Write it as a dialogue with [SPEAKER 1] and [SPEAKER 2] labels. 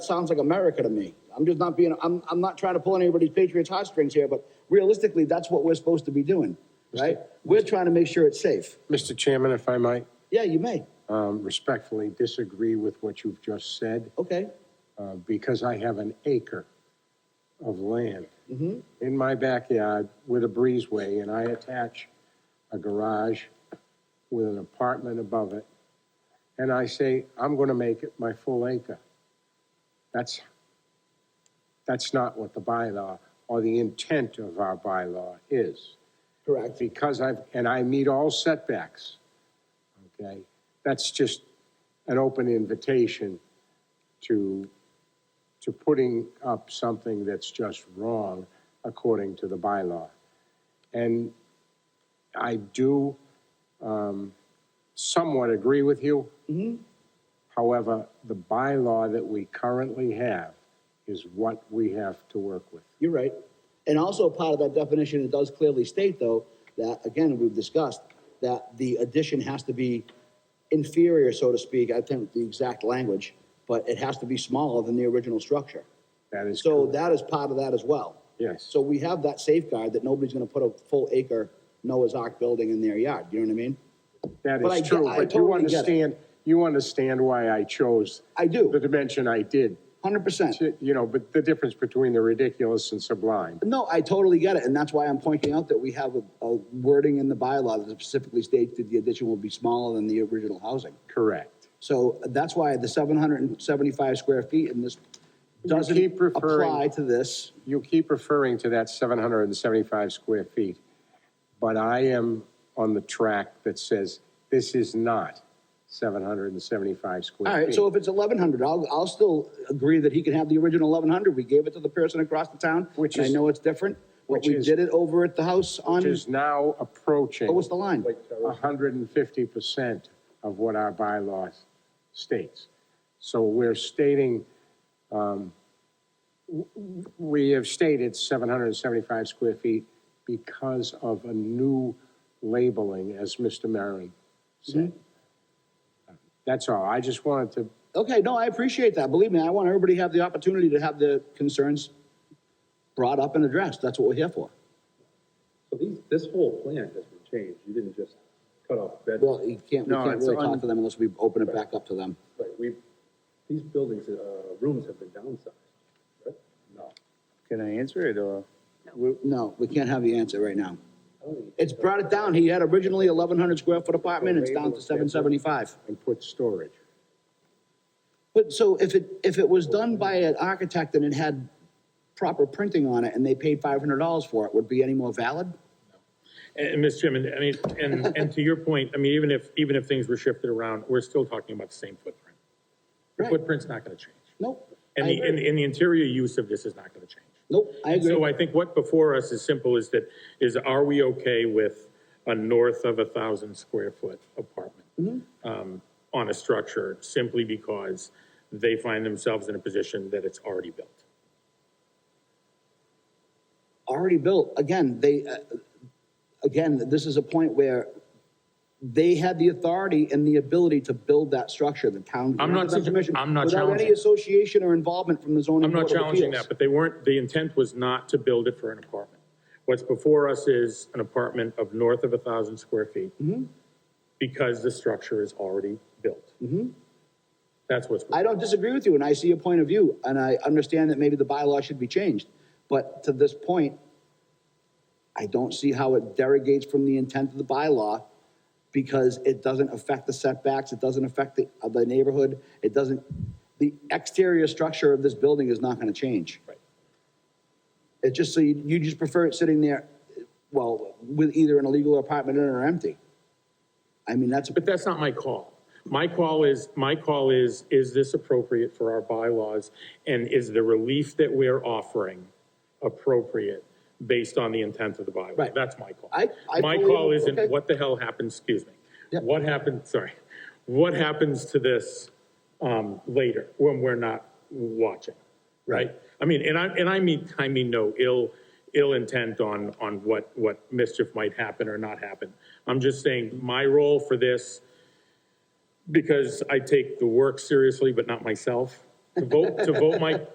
[SPEAKER 1] sounds like America to me. I'm just not being, I'm, I'm not trying to pull anybody's Patriots heartstrings here, but realistically, that's what we're supposed to be doing, right? We're trying to make sure it's safe.
[SPEAKER 2] Mr. Chairman, if I might
[SPEAKER 1] Yeah, you may.
[SPEAKER 2] um, respectfully disagree with what you've just said,
[SPEAKER 1] Okay,
[SPEAKER 2] uh, because I have an acre of land in my backyard with a breezeway, and I attach a garage with an apartment above it, and I say, I'm going to make it my full acre. That's, that's not what the bylaw or the intent of our bylaw is.
[SPEAKER 1] correct.
[SPEAKER 2] because I've, and I meet all setbacks, okay? That's just an open invitation to, to putting up something that's just wrong according to the bylaw. And I do um, somewhat agree with you. However, the bylaw that we currently have is what we have to work with.
[SPEAKER 1] You're right. And also part of that definition, it does clearly state though, that again, we've discussed, that the addition has to be inferior, so to speak, I think the exact language, but it has to be smaller than the original structure.
[SPEAKER 2] That is
[SPEAKER 1] So
[SPEAKER 2] correct.
[SPEAKER 1] that is part of that as well.
[SPEAKER 2] Yes.
[SPEAKER 1] So we have that safeguard that nobody's gonna put a full acre Noah's Ark building in their yard, you know what I mean?
[SPEAKER 2] That
[SPEAKER 1] But I
[SPEAKER 2] is
[SPEAKER 1] get-
[SPEAKER 2] true,
[SPEAKER 1] I
[SPEAKER 2] but you
[SPEAKER 1] totally get it.
[SPEAKER 2] understand, you understand why I chose
[SPEAKER 1] I
[SPEAKER 2] the
[SPEAKER 1] do,
[SPEAKER 2] dimension I did,
[SPEAKER 1] hundred percent.
[SPEAKER 2] to- you know, but the difference between the ridiculous and sublime.
[SPEAKER 1] No, I totally get it, and that's why I'm pointing out that we have a, a wording in the bylaw that specifically states that the addition will be smaller than the original housing.
[SPEAKER 2] Correct.
[SPEAKER 1] So that's why the seven hundred and seventy-five square feet in this doesn't
[SPEAKER 2] keep referring-
[SPEAKER 1] apply to this.
[SPEAKER 2] You keep referring to that 775 square feet, but I am on the track that says this is not 775
[SPEAKER 1] All
[SPEAKER 2] square
[SPEAKER 1] right,
[SPEAKER 2] feet.
[SPEAKER 1] so if it's eleven hundred, I'll, I'll still agree that he can have the original eleven hundred. We gave it to the person across the town,
[SPEAKER 2] Which
[SPEAKER 1] which I
[SPEAKER 2] is-
[SPEAKER 1] know it's different. But
[SPEAKER 2] which
[SPEAKER 1] we
[SPEAKER 2] is-
[SPEAKER 1] did it over at the house on,
[SPEAKER 2] Which is now approaching
[SPEAKER 1] what was the line?
[SPEAKER 2] 150% of what our bylaws states. So we're stating, um, w- w- we have stated 775 square feet because of a new labeling, as Mr. Maron said.
[SPEAKER 1] Mm-hmm.
[SPEAKER 2] That's all. I just wanted to,
[SPEAKER 1] Okay, no, I appreciate that. Believe me, I want everybody to have the opportunity to have the concerns brought up and addressed. That's what we're here for.
[SPEAKER 3] So these, this whole plan has been changed, you didn't just cut off
[SPEAKER 1] Well,
[SPEAKER 3] bedrooms.
[SPEAKER 1] you can't, we
[SPEAKER 2] No,
[SPEAKER 1] can't
[SPEAKER 2] it's
[SPEAKER 1] really
[SPEAKER 2] un-
[SPEAKER 1] talk to them unless we open it back up to them.
[SPEAKER 3] Right, we, these buildings, uh, rooms have been downsized, right? No.
[SPEAKER 4] Can I answer it or?
[SPEAKER 1] No, we can't have the answer right now.
[SPEAKER 3] I don't think-
[SPEAKER 1] It's brought it down. He had originally eleven hundred square foot apartment, it's down to seven seventy-five.
[SPEAKER 2] and put storage.
[SPEAKER 1] But so if it, if it was done by an architect and it had proper printing on it and they paid five hundred dollars for it, would it be any more valid?
[SPEAKER 5] And, and Ms. Chairman, I mean, and, and to your point, I mean, even if, even if things were shifted around, we're still talking about the same footprint. The
[SPEAKER 1] Right.
[SPEAKER 5] footprint's not gonna change.
[SPEAKER 1] Nope. I
[SPEAKER 5] And the, and,
[SPEAKER 1] agree.
[SPEAKER 5] and the interior use of this is not gonna change.
[SPEAKER 1] Nope, I agree.
[SPEAKER 5] So I think what before us is simple is that, is are we okay with a north of a thousand square foot apartment?
[SPEAKER 1] Mm-hmm.
[SPEAKER 5] Um, on a structure simply because they find themselves in a position that it's already built.
[SPEAKER 1] already built. Again, they, uh, again, this is a point where they had the authority and the ability to build that structure, the town.
[SPEAKER 5] I'm
[SPEAKER 1] granted them
[SPEAKER 5] not suggest-
[SPEAKER 1] permission
[SPEAKER 5] I'm not
[SPEAKER 1] Without any
[SPEAKER 5] challenging.
[SPEAKER 1] association or involvement from the zoning.
[SPEAKER 5] I'm not
[SPEAKER 1] Board of
[SPEAKER 5] challenging
[SPEAKER 1] Appeals.
[SPEAKER 5] that, but they weren't, the intent was not to build it for an apartment. What's before us is an apartment of north of a thousand square feet.
[SPEAKER 1] Mm-hmm.
[SPEAKER 5] Because the structure is already built. That's what's.
[SPEAKER 1] Mm-hmm. I don't disagree with you, and I see your point of view, and I understand that maybe the bylaw should be changed. But to this point, I don't see how it derogates from the intent of the bylaw because it doesn't affect the setbacks, it doesn't affect the, uh, the neighborhood, it doesn't, the exterior structure of this building is not gonna change.
[SPEAKER 5] Right.
[SPEAKER 1] It's just so you, you just prefer it sitting there, well, with either an illegal apartment in it or empty. I mean, that's,
[SPEAKER 5] But that's not my call. My call is, my call is, is this appropriate for our bylaws? And is the relief that we're offering appropriate based on the intent of the bylaw?
[SPEAKER 1] Right.
[SPEAKER 5] That's my call.
[SPEAKER 1] I- I
[SPEAKER 5] My
[SPEAKER 1] believe-
[SPEAKER 5] call
[SPEAKER 1] okay.
[SPEAKER 5] isn't what the hell happens, excuse me.
[SPEAKER 1] Yep.
[SPEAKER 5] What happened, sorry, what happens to this, um, later when we're not watching? Right? I mean, and I, and I mean, I mean, no ill, ill intent on, on what, what mischief might happen or not happen. I'm just saying my role for this because I take the work seriously, but not myself, to vote, to vote my